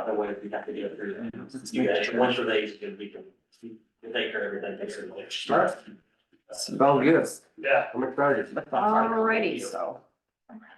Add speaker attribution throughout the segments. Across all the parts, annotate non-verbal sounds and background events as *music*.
Speaker 1: otherwise we have to go
Speaker 2: Mm.
Speaker 1: through you guys, once you're late, we can, we take care of everything, make sure it's late.
Speaker 3: Sounds good.
Speaker 1: Yeah.
Speaker 3: I'm excited.
Speaker 2: Alrighty, so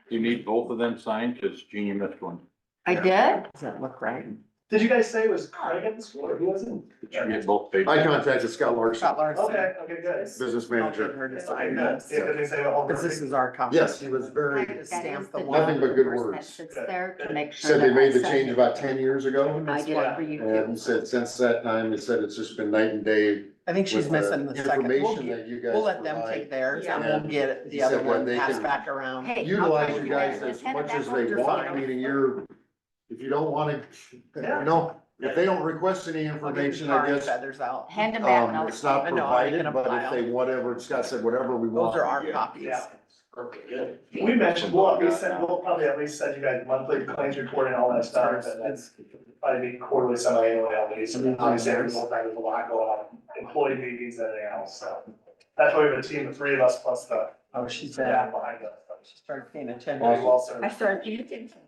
Speaker 4: You need both of them signed, cause Jeannie missed one.
Speaker 2: I did?
Speaker 3: Doesn't look right.
Speaker 1: Did you guys say it was Craig at the school or he wasn't?
Speaker 4: Did you get both pages?
Speaker 5: I contacted Scott Larson,
Speaker 2: Scott Larson.
Speaker 1: okay, good.
Speaker 5: business
Speaker 2: I'll give
Speaker 5: manager.
Speaker 2: her to sign this,
Speaker 1: Yeah, did they say all?
Speaker 2: because this is our copy.
Speaker 5: Yes, he was very,
Speaker 2: To Stamp the one.
Speaker 5: nothing but good words.
Speaker 6: Sits there to make sure.
Speaker 5: Said they
Speaker 6: that
Speaker 5: made the
Speaker 6: I sent
Speaker 5: change
Speaker 6: it.
Speaker 5: about ten years ago.
Speaker 6: I did it for you
Speaker 5: And he
Speaker 6: too.
Speaker 5: said since that time, he said it's just been night and day.
Speaker 2: I think she's
Speaker 5: with the
Speaker 2: missing the second. We'll,
Speaker 5: Information
Speaker 2: get-
Speaker 5: that you guys
Speaker 2: we'll let them take
Speaker 5: provide.
Speaker 2: theirs and
Speaker 5: Yeah.
Speaker 2: we'll get it- the
Speaker 5: Except
Speaker 2: other
Speaker 5: that
Speaker 2: one
Speaker 5: they
Speaker 2: passed
Speaker 5: can
Speaker 2: back around.
Speaker 6: Hey, I'll
Speaker 5: Utilize
Speaker 6: find you
Speaker 5: you guys
Speaker 6: that.
Speaker 5: as
Speaker 6: Just hand it
Speaker 5: much
Speaker 6: back
Speaker 5: as
Speaker 6: over
Speaker 5: they
Speaker 6: to
Speaker 5: want,
Speaker 6: them.
Speaker 5: meaning you're, if you don't wanna, you
Speaker 1: Yeah.
Speaker 5: know, if they don't request any
Speaker 2: I'll get
Speaker 5: information,
Speaker 2: the
Speaker 5: I
Speaker 2: tar and
Speaker 5: guess.
Speaker 2: feathers out.
Speaker 6: Hand them back. and
Speaker 5: Um,
Speaker 6: I'll-
Speaker 5: it's not
Speaker 2: I know, I can
Speaker 5: provided, but
Speaker 2: apply
Speaker 5: if they, whatever, Scott said, whatever we want.
Speaker 2: Those are our
Speaker 5: yeah.
Speaker 2: copies.
Speaker 1: Yeah. We mentioned, well, we said, we'll probably at least send you guys monthly claims report and all that stuff, but that's probably be quarterly, semi-annually, at least. And
Speaker 2: Mm-hmm.
Speaker 1: Obviously, every single time there's a lot going on, employee meetings and everything else, so. That's why we have a team of three of us plus the
Speaker 2: Oh, she's bad.
Speaker 1: staff behind us. so
Speaker 2: She started paying
Speaker 1: we
Speaker 2: attention.
Speaker 1: also-
Speaker 6: I started paying attention.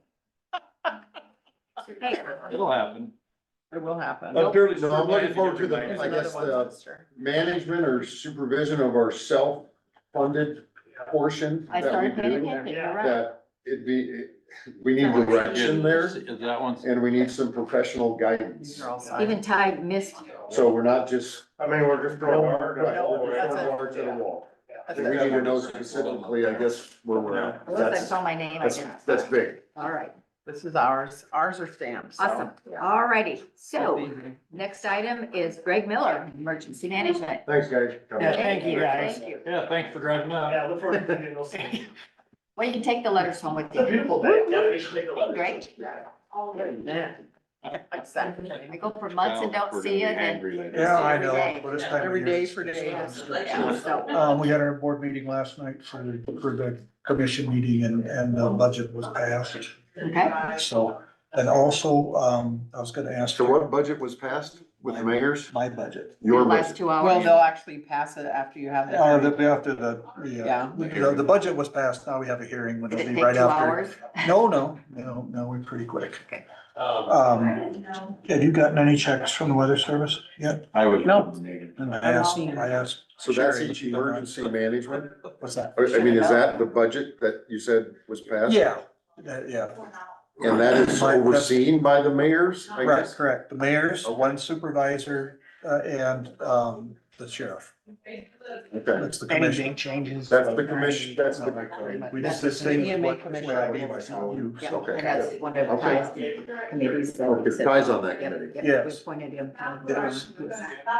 Speaker 6: Hey,
Speaker 4: It'll happen.
Speaker 2: It will happen.
Speaker 4: I'm fairly
Speaker 5: No, I'm looking
Speaker 4: certain
Speaker 5: forward to the-
Speaker 4: I
Speaker 2: Here's
Speaker 4: didn't
Speaker 5: I
Speaker 4: get
Speaker 2: another
Speaker 5: guess uh,
Speaker 2: one,
Speaker 5: the-
Speaker 2: sister.
Speaker 5: Management or supervision of our self-funded portion
Speaker 6: I
Speaker 5: that we
Speaker 6: started paying
Speaker 5: do.
Speaker 6: attention, you're right.
Speaker 5: That it'd be, we need direction there
Speaker 4: Is that one?
Speaker 5: and we need some professional
Speaker 2: These
Speaker 5: guidance.
Speaker 2: are all
Speaker 6: Even
Speaker 2: signed.
Speaker 6: Ty missed,
Speaker 5: So we're not just.
Speaker 1: I mean, we're just
Speaker 5: throwing
Speaker 1: going.
Speaker 5: our- right,
Speaker 2: That's
Speaker 5: throwing
Speaker 2: it.
Speaker 5: our to the wall.
Speaker 2: That's
Speaker 5: We
Speaker 2: it.
Speaker 5: need to know specifically, I guess, where we're at.
Speaker 6: unless I
Speaker 5: That's,
Speaker 6: saw my name, I
Speaker 5: that's,
Speaker 6: didn't.
Speaker 5: that's big.
Speaker 6: All right,
Speaker 2: This is ours. Ours are stamped, so.
Speaker 6: awesome. All righty. So
Speaker 2: Easy.
Speaker 6: next item is Greg Miller, Emergency Management.
Speaker 5: Thanks, guys.
Speaker 2: Yeah, thank you, guys.
Speaker 6: Thank you.
Speaker 4: Yeah, thanks for driving up.
Speaker 1: Yeah,
Speaker 2: *laughs*
Speaker 1: look forward to seeing those. It's
Speaker 6: Well, you can take the letters home with
Speaker 1: a
Speaker 6: you.
Speaker 1: beautiful day.
Speaker 2: *laughs*
Speaker 6: Great.
Speaker 2: Yeah.
Speaker 6: I
Speaker 2: Exactly.
Speaker 6: go for months and don't see it and.
Speaker 7: Yeah, I
Speaker 6: Every
Speaker 7: know,
Speaker 6: day.
Speaker 7: but it's time.
Speaker 2: Every
Speaker 7: of year.
Speaker 2: day for days.
Speaker 6: Yeah, so,
Speaker 7: Um, we had our board meeting last night for the, for the commission meeting and, and the budget was passed.
Speaker 6: okay.
Speaker 7: So, and also, um, I was gonna ask
Speaker 5: So what budget was passed with the mayor's?
Speaker 7: my budget.
Speaker 5: Your
Speaker 6: Last
Speaker 5: budget.
Speaker 6: two
Speaker 2: Well,
Speaker 6: hours.
Speaker 2: they'll actually pass it after you have
Speaker 7: Uh,
Speaker 2: the.
Speaker 7: the, after the, the,
Speaker 2: Yeah.
Speaker 7: uh, the, the budget was passed, now we have a hearing, which
Speaker 6: Did
Speaker 7: will
Speaker 6: it take
Speaker 7: be
Speaker 6: two
Speaker 7: right after.
Speaker 6: hours?
Speaker 7: No, no, no, no, we're pretty quick.
Speaker 1: Um,
Speaker 7: Um, have you gotten any checks from the weather service yet?
Speaker 4: I was.
Speaker 2: No.
Speaker 7: And I asked, I asked,
Speaker 5: So that's
Speaker 7: Sure,
Speaker 5: each
Speaker 7: you don't mind.
Speaker 5: emergency management?
Speaker 7: what's that?
Speaker 5: I I mean, is that the budget that you said was passed?
Speaker 7: Yeah, that- yeah.
Speaker 5: And that is
Speaker 7: Right, that's-
Speaker 5: overseen by the mayors, I
Speaker 7: Right,
Speaker 5: guess?
Speaker 7: correct. The mayor's, one supervisor, uh, and, um, the sheriff.
Speaker 5: Okay,
Speaker 7: That's the commission.
Speaker 2: changes.
Speaker 5: that's the commission, that's the.
Speaker 7: We just the same as
Speaker 2: EMA
Speaker 7: what.
Speaker 2: commission.
Speaker 7: what I gave myself.
Speaker 6: Yeah,
Speaker 5: Okay.
Speaker 6: and that's one of the
Speaker 5: Okay.
Speaker 6: ties to the committees. that we
Speaker 5: Okay,
Speaker 6: sit
Speaker 5: Ty's on that
Speaker 6: Yep,
Speaker 5: committee.
Speaker 6: yep,
Speaker 7: Yes.
Speaker 6: We appointed him.
Speaker 7: Yes.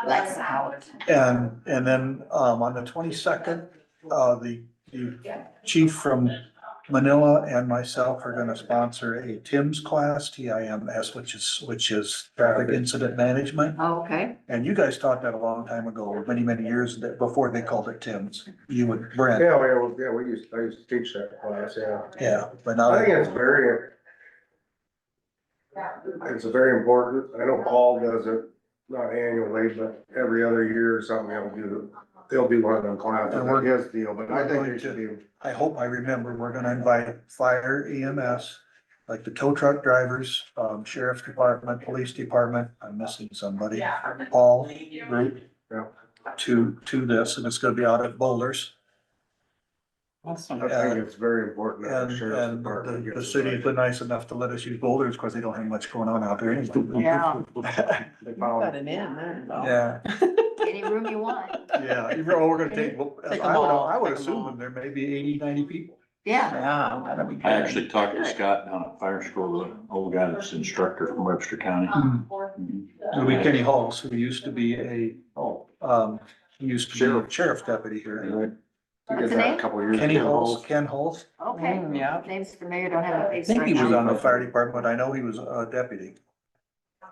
Speaker 6: Last hour.
Speaker 7: And, and then, um, on the twenty-second, uh, the, the chief from Manila and myself are gonna sponsor a TIMS class, T I M S, which is, which is traffic incident management.
Speaker 6: Okay,
Speaker 7: And you guys taught that a long time ago, many, many years, that- before they called it TIMS, you and Brent,
Speaker 5: Yeah, well, yeah, we used, I used to teach that class, yeah.
Speaker 7: yeah, but now.
Speaker 5: very. It's very important. I know Paul does it, not annually, but every other year or something, he'll do, they'll do one of them classes.
Speaker 7: And we're-
Speaker 5: his deal, but
Speaker 7: I think it should I hope I remember, we're gonna invite fire EMS, like the tow truck drivers, um, sheriff's department, police department, I'm missing somebody. Paul group.
Speaker 5: Yeah.
Speaker 7: To, to this, and it's gonna be out at Boulders,
Speaker 5: I think it's very important. that
Speaker 7: and,
Speaker 5: the sheriff's
Speaker 7: and
Speaker 5: department
Speaker 7: the, the
Speaker 5: gets it
Speaker 7: city's
Speaker 5: right.
Speaker 7: been nice enough to let us use Boulders, cause they don't have much going on out there anyway.
Speaker 2: Yeah.
Speaker 5: They
Speaker 2: Got an
Speaker 5: found-
Speaker 2: in there. though.
Speaker 7: Yeah,
Speaker 6: any room you want.
Speaker 7: yeah, even, oh, we're gonna take, well, I
Speaker 2: Take
Speaker 7: would,
Speaker 2: 'em all,
Speaker 7: I would
Speaker 2: take 'em all.
Speaker 7: assume there may be 80, 90 people.
Speaker 6: Yeah,
Speaker 2: Yeah. that'd be
Speaker 4: I
Speaker 2: good.
Speaker 4: actually talked to Scott down at fire school, the old guy that's instructor from Webster County.
Speaker 7: And we Kenny Halls, who used to be a, oh, um, he used to be sheriff deputy here.
Speaker 5: He
Speaker 6: What's
Speaker 5: did
Speaker 6: the
Speaker 5: that
Speaker 6: name?
Speaker 5: a couple of years ago.
Speaker 7: Kenny Halls, Ken Halls,
Speaker 6: okay.
Speaker 2: Mm, Yeah.
Speaker 6: Name's familiar, don't have a
Speaker 7: I
Speaker 6: face
Speaker 7: think he
Speaker 6: right
Speaker 7: was
Speaker 6: now.
Speaker 7: on the fire department, I know he was a deputy.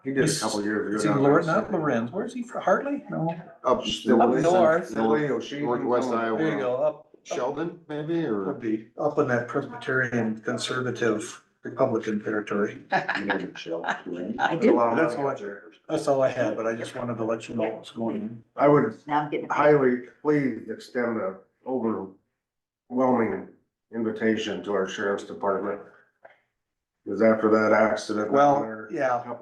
Speaker 5: He did a couple of years ago.
Speaker 7: Is he
Speaker 5: down
Speaker 7: Loren,
Speaker 5: there.
Speaker 7: not Lorenz, where's he from, Hartley? No.
Speaker 5: Up
Speaker 7: Up
Speaker 5: Stillwater.
Speaker 7: north.
Speaker 5: Northwest Iowa.
Speaker 7: There you go, up,
Speaker 5: Sheldon, maybe,
Speaker 7: would
Speaker 5: or?
Speaker 7: be up in that Presbyterian conservative Republican territory.
Speaker 6: I do,
Speaker 5: Wow,
Speaker 7: That's all I, that's all I had, but I just wanted to let you know what's going on.
Speaker 5: I would
Speaker 6: now I'm getting.
Speaker 5: highly please extend an overwhelming invitation to our sheriff's department. Because after that accident.
Speaker 7: Well, yeah.